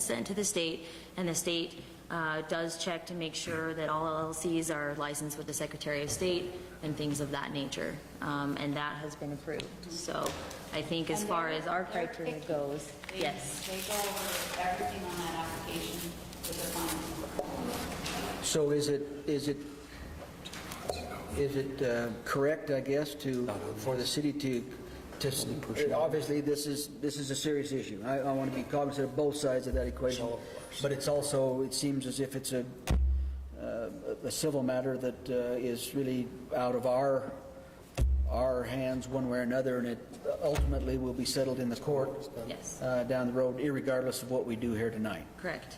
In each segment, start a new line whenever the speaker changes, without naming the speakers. sent to the state, and the state uh, does check to make sure that all LLCs are licensed with the Secretary of State and things of that nature, Um, and that has been approved. So I think as far as our criteria goes,
They-
yes.
They go over everything on that application with the client.
So is it, is it, is it uh, correct, I guess, to, for the city to, to, obviously, this is, this is a serious issue. I, I want to be cognizant of both sides of that equation, but it's also, it seems as if it's a, uh, a civil matter that uh, is really out of our, our hands one way or another, and it ultimately will be settled in the court.
Yes.
uh, Down the road, irregardless of what we do here tonight.
Correct.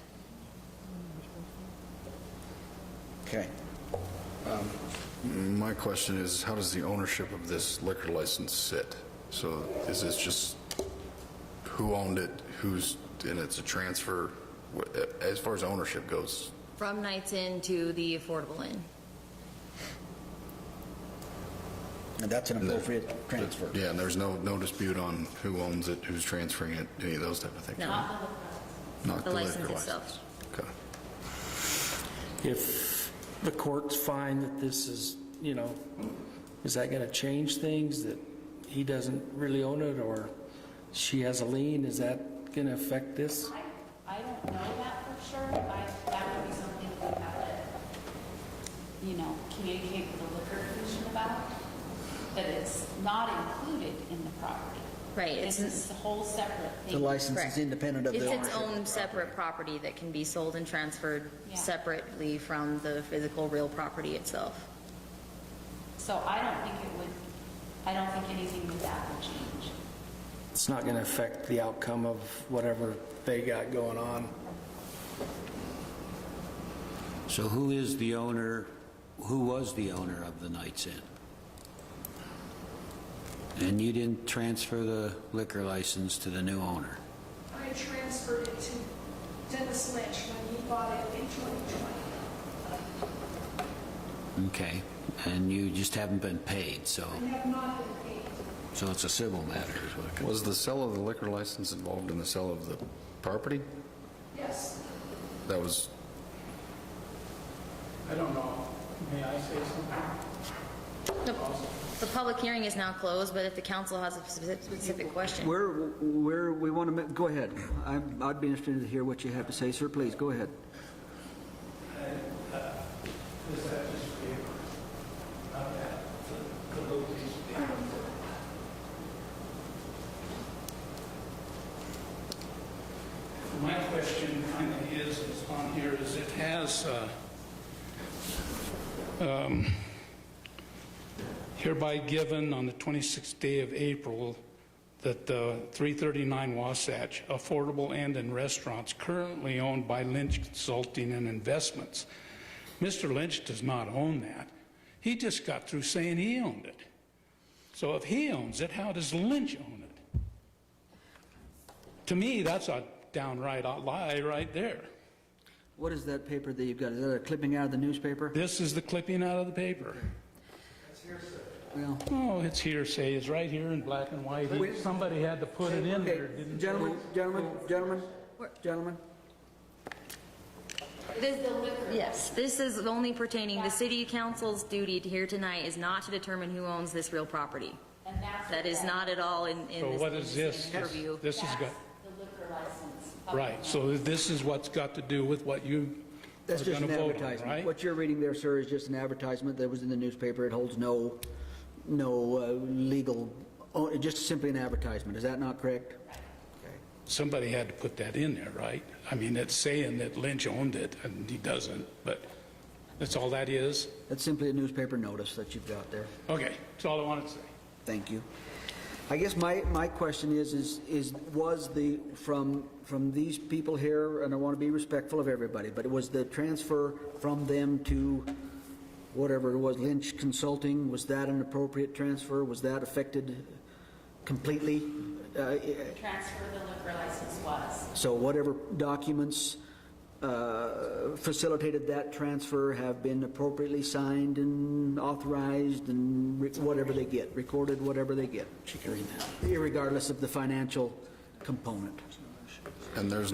Okay.
My question is, how does the ownership of this liquor license sit? So is this just who owned it, who's, and it's a transfer? What- As far as ownership goes,
From Knights Inn to the Affordable Inn.
And that's an appropriate transfer.
yeah, and there's no, no dispute on who owns it, who's transferring it, any of those type of things?
No,
Not
the
liquor
license itself.
license. Okay.
If the courts find that this is, you know, is that going to change things, that he doesn't really own it, or she has a lien, is that going to affect this?
I, I don't know that for sure, but I, that would be something we would have to, you know, communicate with the liquor commission about, that it's not included in the property.
Right,
This
it's-
is a whole separate thing.
The license
Correct.
is independent of the
It's
ownership.
its own separate property that can be sold and transferred
Yeah.
separately from the physical, real property itself.
So I don't think it would, I don't think anything with that would change.
It's not going to affect the outcome of whatever they got going on.
So who is the owner, who was the owner of the Knights Inn? And you didn't transfer the liquor license to the new owner?
I transferred it to Dennis Lynch when he bought it in 2020.
Okay, and you just haven't been paid, so,
I have not been paid.
so it's a civil matter is what it comes.
Was the sale of the liquor license involved in the sale of the property?
Yes,
That was,
I don't know. May I say something?
The the public hearing is now closed, but if the council has a specific- specific question.
Where, where, we want to, go ahead. I'm- I'd be interested to hear what you have to say, sir, please, go ahead.
Is that just paper? Not that, the, the little piece of paper. My question kind of is, is on here, is it has, uh, um, hereby given on the 26th day of April that uh, 339 Wasatch Affordable Inn and Restaurants currently owned by Lynch Consulting and Investments. Mr. Lynch does not own that. He just got through saying he owned it. So if he owns it, how does Lynch own it? To me, that's a downright lie right there.
What is that paper that you've got? Is that a clipping out of the newspaper?
This is the clipping out of the paper.
Well,
Oh, it's hearsay. It's right here in black and white. Somebody had to put it in
okay,
there, didn't they?
gentlemen, gentlemen, gentlemen, gentlemen,
Yes, this is only pertaining, the city council's duty here tonight is not to determine who owns this real property.
And that's.
That is not at all in, in
So
this.
what is this? This-
Purview.
This has got,
That's the liquor license.
right, so this is what's got to do with what you are
that's just
going to
an
vote on,
advertisement.
right?
What you're reading there, sir, is just an advertisement that was in the newspaper. It holds no, no uh, legal, oh, just simply an advertisement, is that not correct?
Somebody had to put that in there, right? I mean, it's saying that Lynch owned it, and he doesn't, but that's all that is?
That's simply a newspaper notice that you've got there.
Okay, that's all I wanted to say.
Thank you. I guess my, my question is, is, is, was the, from, from these people here, and I want to be respectful of everybody, but was the transfer from them to whatever it was, Lynch Consulting, was that an appropriate transfer? Was that affected completely? Uh,
Transfer the liquor license was.
So whatever documents uh, facilitated that transfer have been appropriately signed and authorized and re- whatever they get, recorded, whatever they get. Irregardless of the financial component.
and there's